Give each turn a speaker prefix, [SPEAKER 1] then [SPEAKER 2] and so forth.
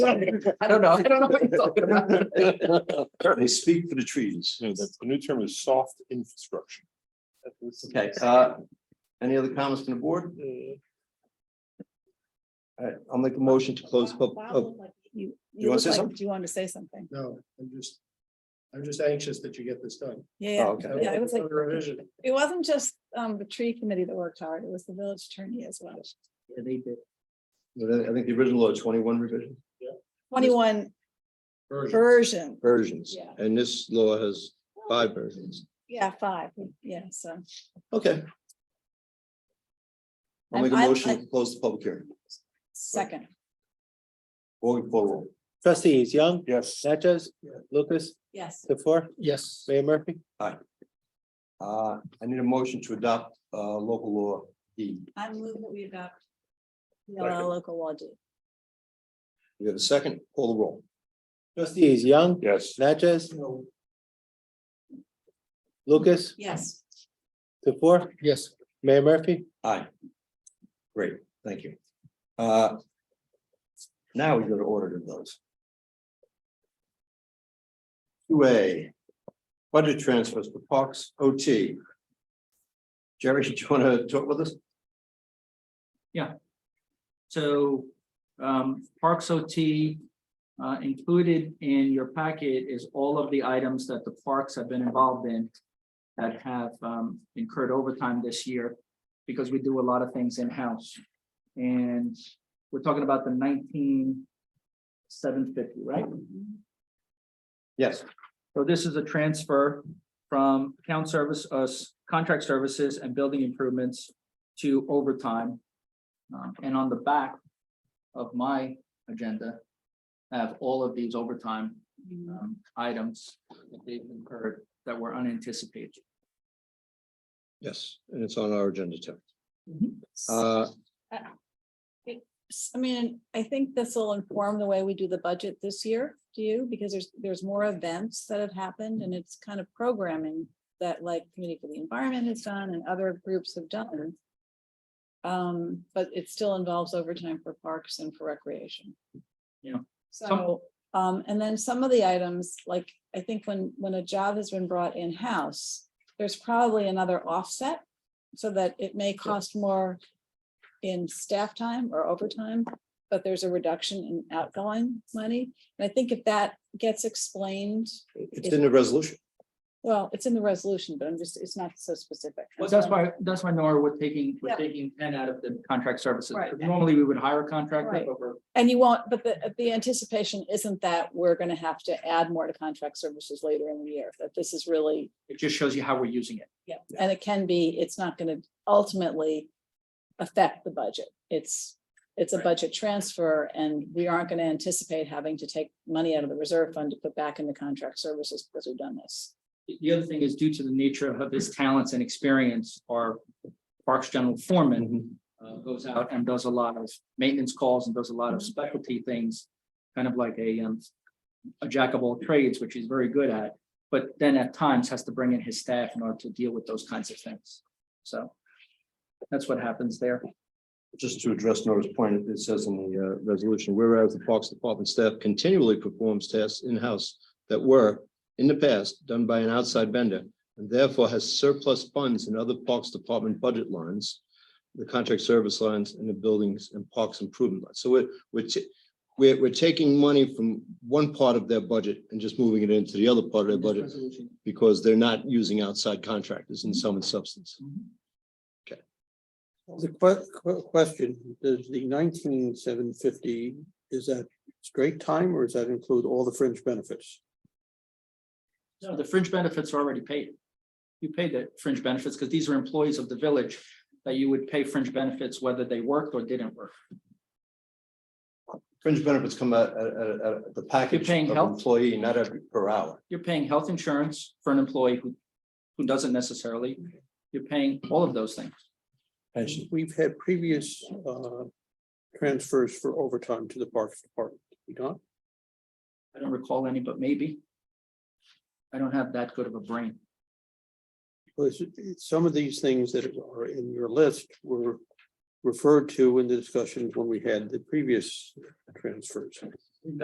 [SPEAKER 1] I don't know. I don't know what you're talking about.
[SPEAKER 2] They speak for the trees.
[SPEAKER 3] No, that's, the new term is soft infrastructure.
[SPEAKER 1] Okay, uh, any other comments from the board? All right, I'll make a motion to close. pub-
[SPEAKER 4] Wow,
[SPEAKER 1] oh,
[SPEAKER 4] look like You,
[SPEAKER 2] You
[SPEAKER 4] you
[SPEAKER 2] wanna
[SPEAKER 4] look
[SPEAKER 2] say
[SPEAKER 4] like,
[SPEAKER 2] something?
[SPEAKER 4] do you want to say something?
[SPEAKER 5] No, I'm just, I'm just anxious that you get this done.
[SPEAKER 4] Yeah,
[SPEAKER 1] oh,
[SPEAKER 4] yeah.
[SPEAKER 1] Okay,
[SPEAKER 4] Yeah, it was like-
[SPEAKER 5] Another Revision.
[SPEAKER 4] it wasn't just um the tree committee that worked hard, it was the village attorney as well.
[SPEAKER 1] I think the original law twenty-one revision
[SPEAKER 4] Twenty-one
[SPEAKER 5] Version.
[SPEAKER 4] version,
[SPEAKER 1] versions,
[SPEAKER 4] Yeah.
[SPEAKER 1] and this law has five versions.
[SPEAKER 4] yeah, five, yeah, so.
[SPEAKER 1] Okay. I'll
[SPEAKER 4] I'm-
[SPEAKER 1] make a
[SPEAKER 4] I'm-
[SPEAKER 1] motion to close the public hearing.
[SPEAKER 4] Second,
[SPEAKER 1] Going forward.
[SPEAKER 6] Trustees Young,
[SPEAKER 3] Yes.
[SPEAKER 6] Natchez, Lucas,
[SPEAKER 4] yes,
[SPEAKER 6] the four,
[SPEAKER 5] Yes.
[SPEAKER 6] Mayor Murphy.
[SPEAKER 1] Uh, I need a motion to adopt, uh, local law E.
[SPEAKER 4] I'm moving that we adopt.
[SPEAKER 1] Second.
[SPEAKER 4] The local law D.
[SPEAKER 1] We have a second, call the roll.
[SPEAKER 6] Trustees Young,
[SPEAKER 3] Yes.
[SPEAKER 6] Natchez, Lucas,
[SPEAKER 4] Yes.
[SPEAKER 6] the four,
[SPEAKER 5] Yes.
[SPEAKER 6] Mayor Murphy.
[SPEAKER 1] Aye. Great, thank you. Uh. Now we go to order those. Two A. Budget transfers for Parks OT. Jerry, do you want to talk with us?
[SPEAKER 7] So um Parks OT uh included in your packet is all of the items that the parks have been involved in that have um incurred overtime this year because we do a lot of things in-house. And we're talking about the nineteen seven fifty, right?
[SPEAKER 1] Yes.
[SPEAKER 7] So this is a transfer from account service, uh, contract services and building improvements to overtime. Um, and on the back of my agenda, I have all of these overtime, um, items that they've incurred that were unanticipated.
[SPEAKER 1] Yes, and it's on our agenda too.
[SPEAKER 4] I
[SPEAKER 1] Uh,
[SPEAKER 4] mean, I think this will inform the way we do the budget this year, do you? Because there's, there's more events that have happened and it's kind of programming that like Committee for the Environment has done and other groups have done. Um, but it still involves overtime for parks and for recreation.
[SPEAKER 7] Yeah.
[SPEAKER 4] So, um, and then some of the items, like, I think when, when a job has been brought in-house, there's probably another offset. So that it may cost more in staff time or overtime, but there's a reduction in outgoing money. And I think if that gets explained,
[SPEAKER 1] it's in the resolution.
[SPEAKER 4] well, it's in the resolution, but I'm just, it's not so specific.
[SPEAKER 7] Well, that's why, that's why Nora, we're taking,
[SPEAKER 4] Yeah.
[SPEAKER 7] we're taking ten out of the contract services.
[SPEAKER 4] Right.
[SPEAKER 7] Normally, we would hire a contractor,
[SPEAKER 4] Right.
[SPEAKER 7] but we're
[SPEAKER 4] And you won't, but the, the anticipation isn't that we're gonna have to add more to contract services later in the year, that this is really,
[SPEAKER 7] it just shows you how we're using it.
[SPEAKER 4] yeah, and it can be, it's not gonna ultimately affect the budget. It's, it's a
[SPEAKER 7] Right.
[SPEAKER 4] budget transfer and we aren't gonna anticipate having to take money out of the reserve fund to put back into contract services because we've done this.
[SPEAKER 7] The- The other thing is due to the nature of his talents and experience, our Parks General Foreman uh, goes out and does a lot of maintenance calls and does a lot of specialty things, kind of like a um, a jack of all trades, which he's very good at, but then at times has to bring in his staff in order to deal with those kinds of things. So that's what happens there.
[SPEAKER 1] Just to address Nora's point, it says in the uh, resolution, whereas the Parks Department staff continually performs tasks in-house that were, in the past, done by an outside vendor, and therefore has surplus funds in other Parks Department budget lines, the contract service lines, and the buildings and parks improvement lines. So we're, we're, ta- we're, we're taking money from one part of their budget and just moving it into the other part of their budget
[SPEAKER 7] Resolution.
[SPEAKER 1] because they're not using outside contractors in sum and substance.
[SPEAKER 7] Mm-hmm.
[SPEAKER 8] The que- que- question, does the nineteen seven fifty, is that straight time or does that include all the fringe benefits?
[SPEAKER 7] No, the fringe benefits are already paid. You pay the fringe benefits because these are employees of the village that you would pay fringe benefits whether they worked or didn't work.
[SPEAKER 1] Fringe benefits come out at, at, at- at the package
[SPEAKER 7] paying
[SPEAKER 1] of
[SPEAKER 7] health?
[SPEAKER 1] employee, not every per hour.
[SPEAKER 7] You're paying health insurance for an employee who, who doesn't necessarily, you're paying all of those things.
[SPEAKER 1] Pension.
[SPEAKER 8] We've had previous uh, transfers for overtime to the Parks Department. We don't,
[SPEAKER 7] I don't recall any, but maybe. I don't have that good of a brain.
[SPEAKER 8] because some of these things that are in your list were referred to in the discussions when we had the previous transfers.